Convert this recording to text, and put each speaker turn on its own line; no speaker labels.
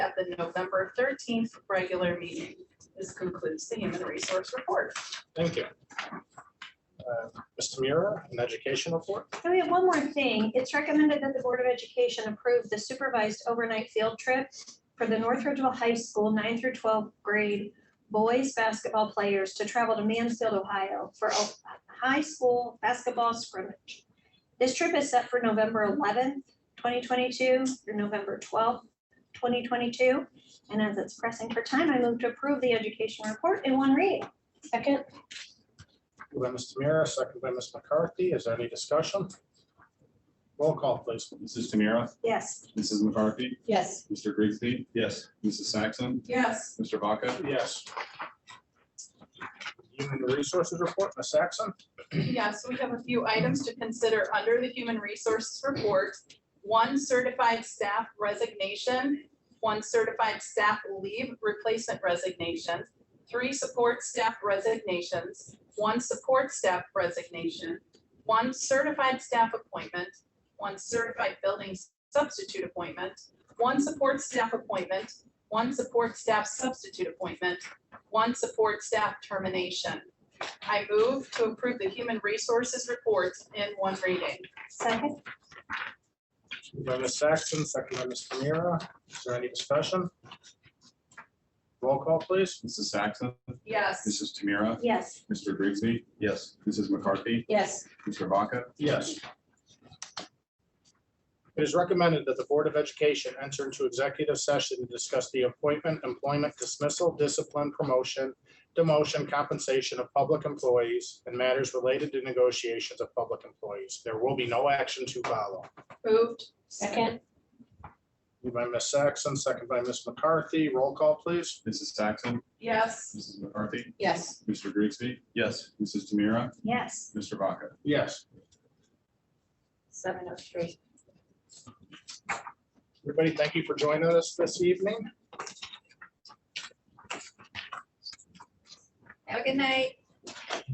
at the November thirteenth regular meeting. This concludes the human resource report.
Thank you. Uh, Mr. Mura, an education report?
And we have one more thing. It's recommended that the Board of Education approve the supervised overnight field trip for the North Ridgeville High School nine through twelve grade boys basketball players to travel to Mansfield, Ohio for a high school basketball scrimmage. This trip is set for November eleventh, twenty twenty-two through November twelfth, twenty twenty-two. And as it's pressing for time, I move to approve the education report in one read. Second.
Moved by Mr. Mura, second by Ms. McCarthy. Is there any discussion? Roll call, please.
Mrs. Tamira?
Yes.
Mrs. McCarthy?
yes,
Mr. Grigsby? Yes. Mrs. Saxon?
Yes.
Mr. Vaca?
Yes. Human Resources Report, Ms. Saxon?
Yes, we have a few items to consider under the human resources report. One certified staff resignation, one certified staff leave replacement resignation, three support staff resignations, one support staff resignation, one certified staff appointment, one certified building substitute appointment, one support staff appointment, one support staff substitute appointment, one support staff termination. I move to approve the human resources report in one reading.
Second.
Moved by Ms. Saxon, second by Mr. Mura. Is there any discussion? Roll call, please.
Mrs. Saxon?
Yes,
Mrs. Tamira?
Yes.
Mr. Grigsby? Yes. Mrs. McCarthy?
yes,
Mr. Vaca?
Yes. It is recommended that the Board of Education enter into executive session to discuss the appointment, employment dismissal, discipline, promotion, demotion, compensation of public employees, and matters related to negotiations of public employees. There will be no action to follow.
moved.
second,
Moved by Ms. Saxon, second by Ms. McCarthy. Roll call, please.
Mrs. Saxon?
Yes,
Mrs. McCarthy?
yes,
Mr. Grigsby? Yes. Mrs. Tamira?
Yes.
Mr. Vaca?
Yes.
seven oh three.
Everybody, thank you for joining us this evening.
have a good night.